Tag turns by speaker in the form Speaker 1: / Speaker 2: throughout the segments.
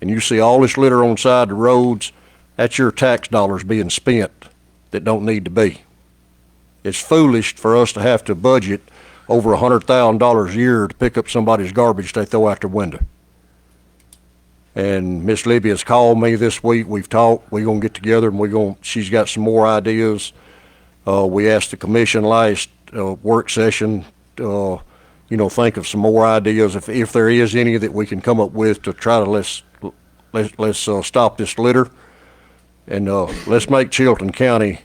Speaker 1: and you see all this litter on the side of the roads, that's your tax dollars being spent that don't need to be. It's foolish for us to have to budget over a hundred thousand dollars a year to pick up somebody's garbage they throw out their window. And Miss Libby has called me this week. We've talked. We're gonna get together and we're gonna, she's got some more ideas. Uh, we asked the commission last, uh, work session, uh, you know, think of some more ideas if, if there is any that we can come up with to try to let's, let's, let's, uh, stop this litter. And, uh, let's make Chilton County,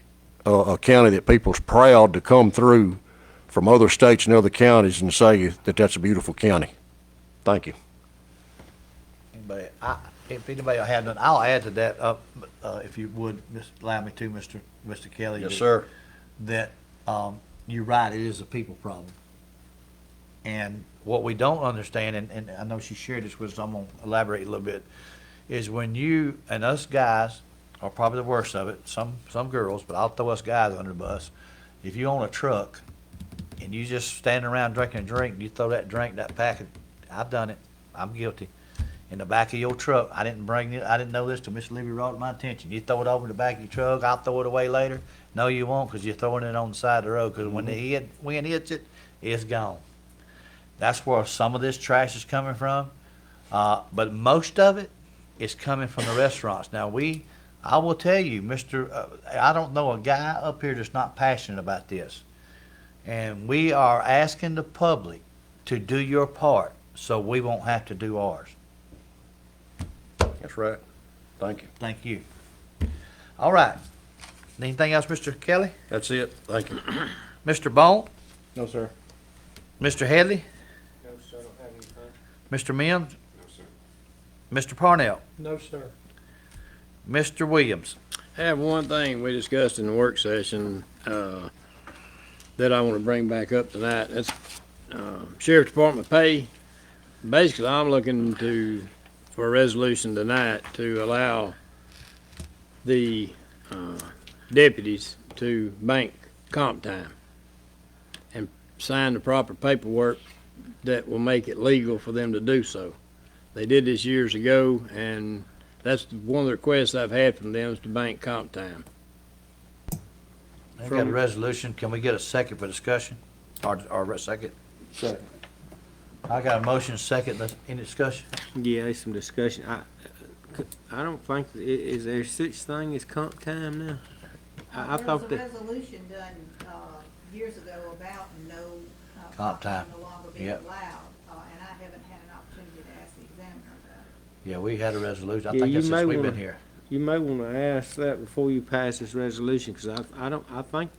Speaker 1: uh, a county that people's proud to come through from other states and other counties and say that that's a beautiful county. Thank you.
Speaker 2: Anybody, I, if anybody had none, I'll add to that, uh, uh, if you would, miss- allow me to, Mr. Mr. Kelly. that- That, um, you're right, it is a people problem. And what we don't understand, and, and I know she shared this with us, I'm gonna elaborate a little bit, is when you, and us guys are probably the worst of it, some, some girls, but I'll throw us guys under the bus. If you own a truck and you just standing around drinking a drink, and you throw that drink, that packet, I've done it, I'm guilty, in the back of your truck, I didn't bring it, I didn't know this till Miss Libby brought it to my attention, you throw it over the back of your truck, I'll throw it away later. No, you won't, cause you're throwing it on the side of the road, cause when the head, wind hits it, it's gone. That's where some of this trash is coming from. Uh, but most of it is coming from the restaurants. Now we, I will tell you, Mr. Uh, I don't know a guy up here that's not passionate about this. And we are asking the public to do your part so we won't have to do ours.
Speaker 1: That's right. Thank you.
Speaker 2: Thank you. All right. Anything else, Mr. Kelly?
Speaker 1: That's it. Thank you.
Speaker 2: Mr. Bone?
Speaker 1: No, sir.
Speaker 2: Mr. Headley?
Speaker 3: No, sir, I don't have any, sir.
Speaker 2: Mr. Mims? No, sir. Mr. Parnell?
Speaker 3: No, sir.
Speaker 2: Mr. Williams?
Speaker 4: have one thing we discussed in the work session, uh, that I want to bring back up tonight. That's, uh, Sheriff Department pay. Basically, I'm looking to, for a resolution tonight to allow the, uh, deputies to bank comp time and sign the proper paperwork that will make it legal for them to do so. They did this years ago and that's one of the requests I've had from them is to bank comp time.
Speaker 2: I got a resolution. Can we get a second for discussion? Or, or a second?
Speaker 1: Second.
Speaker 2: I got a motion, second. Let's- Any discussion?
Speaker 5: Yeah, there's some discussion. I, I don't think, i- is there such thing as comp time now? I, I thought
Speaker 6: There
Speaker 5: that,
Speaker 6: was a resolution done, uh, years ago about no. uh,
Speaker 2: Comp time.
Speaker 6: No longer being
Speaker 2: Yep.
Speaker 6: allowed, uh, and I haven't had an opportunity to ask the examiner about it.
Speaker 2: Yeah, we had a resolution. I
Speaker 5: Yeah,
Speaker 2: think
Speaker 5: you
Speaker 2: that's since
Speaker 5: may
Speaker 2: we've been
Speaker 5: wanna-
Speaker 2: here.
Speaker 5: you may wanna ask that before you pass this resolution, cause I, I don't, I think,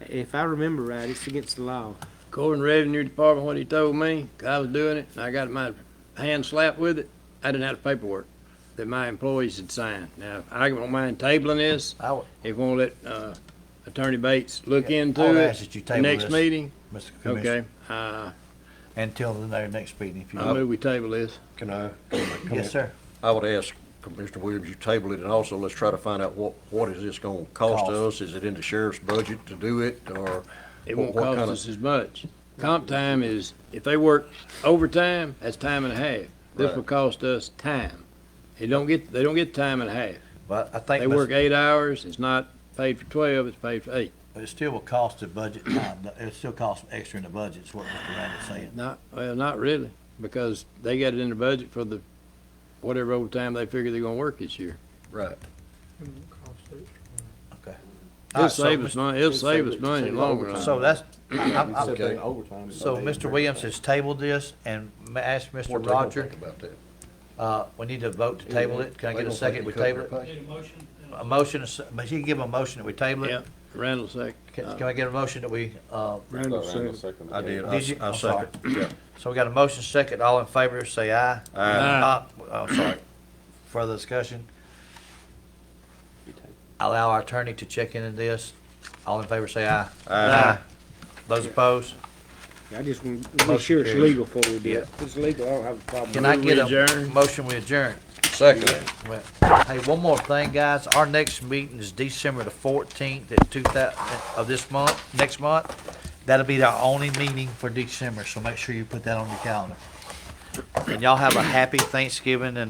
Speaker 5: if I remember right, it's against the law.
Speaker 4: According to Revenue Department, what he told me, 'cause I was doing it, and I got my hand slapped with it, I didn't have the paperwork that my employees had signed. Now, I don't mind tabling this,
Speaker 2: I would,
Speaker 4: if you want to let, uh, Attorney Bates look
Speaker 2: Yeah, I
Speaker 4: into
Speaker 2: would
Speaker 4: it.
Speaker 2: ask that you table
Speaker 4: Next
Speaker 2: this.
Speaker 4: meeting,
Speaker 2: Mr. Commissioner,
Speaker 4: okay, uh,
Speaker 2: until the very next meeting, if you
Speaker 4: I
Speaker 2: will.
Speaker 4: move we table this.
Speaker 1: Can I? can I-
Speaker 2: Yes, sir.
Speaker 1: I would ask Mr. Williams, you table it, and also let's try to find out what, what is this gonna cost
Speaker 2: Cost.
Speaker 1: us? Is it in the sheriff's budget to do it, or?
Speaker 4: It
Speaker 1: what-
Speaker 4: won't
Speaker 1: what
Speaker 4: cost
Speaker 1: kind of-
Speaker 4: us as much. Comp time is, if they work overtime, that's time and a half. This
Speaker 1: Right.
Speaker 4: will cost us time. They don't get, they don't get time and a half.
Speaker 2: But I think
Speaker 4: They work
Speaker 2: Mr.
Speaker 4: eight hours, it's not paid for twelve, it's paid for eight.
Speaker 2: it still will cost the budget time. It still costs extra in the budget, is what Mr. Randall's saying.
Speaker 4: Not, well, not really, because they got it in the budget for the, whatever overtime they figure they're gonna work this year.
Speaker 1: Right.
Speaker 2: All
Speaker 4: It'll
Speaker 2: right, so
Speaker 4: save
Speaker 2: Mr.
Speaker 4: us money, it'll save us money in the long
Speaker 2: So
Speaker 4: run.
Speaker 2: that's, I- I- I-
Speaker 1: Okay.
Speaker 2: so Mr. Williams has tabled this and ma- asked
Speaker 1: What
Speaker 2: Mr.
Speaker 1: they gonna
Speaker 2: Roger,
Speaker 1: think about that?
Speaker 2: uh, we need to vote to table it. Can I
Speaker 1: They
Speaker 2: get a
Speaker 1: gonna
Speaker 2: second?
Speaker 1: think
Speaker 2: We
Speaker 1: you cut
Speaker 2: table it?
Speaker 1: their pay?
Speaker 2: A motion, is- but you can give a motion that we table
Speaker 4: Yeah,
Speaker 2: it.
Speaker 4: Randall sec,
Speaker 2: Can, can I get a motion that we, uh,
Speaker 5: Randall said.
Speaker 1: I did, I,
Speaker 2: Did you?
Speaker 1: I
Speaker 2: I'm sorry.
Speaker 1: second, yeah.
Speaker 2: So we got a motion second, all in favor, say aye.
Speaker 4: Aye.
Speaker 2: Uh, Oh, sorry. Further discussion? Allow our attorney to check in on this. All in favor, say aye. Aye. Those opposed?
Speaker 5: I just want to
Speaker 2: Motion
Speaker 5: be sure it's
Speaker 2: carries.
Speaker 5: legal before we do
Speaker 2: Yeah.
Speaker 5: it. If it's legal, I don't have a problem.
Speaker 2: Can I
Speaker 4: Move
Speaker 2: get
Speaker 4: we
Speaker 2: a
Speaker 4: adjourn?
Speaker 2: motion we adjourn?
Speaker 1: Second.
Speaker 2: Well, Hey, one more thing, guys. Our next meeting is December the fourteenth at two thou, of this month, next month. That'll be our only meeting for December, so make sure you put that on your calendar. And y'all have a happy Thanksgiving and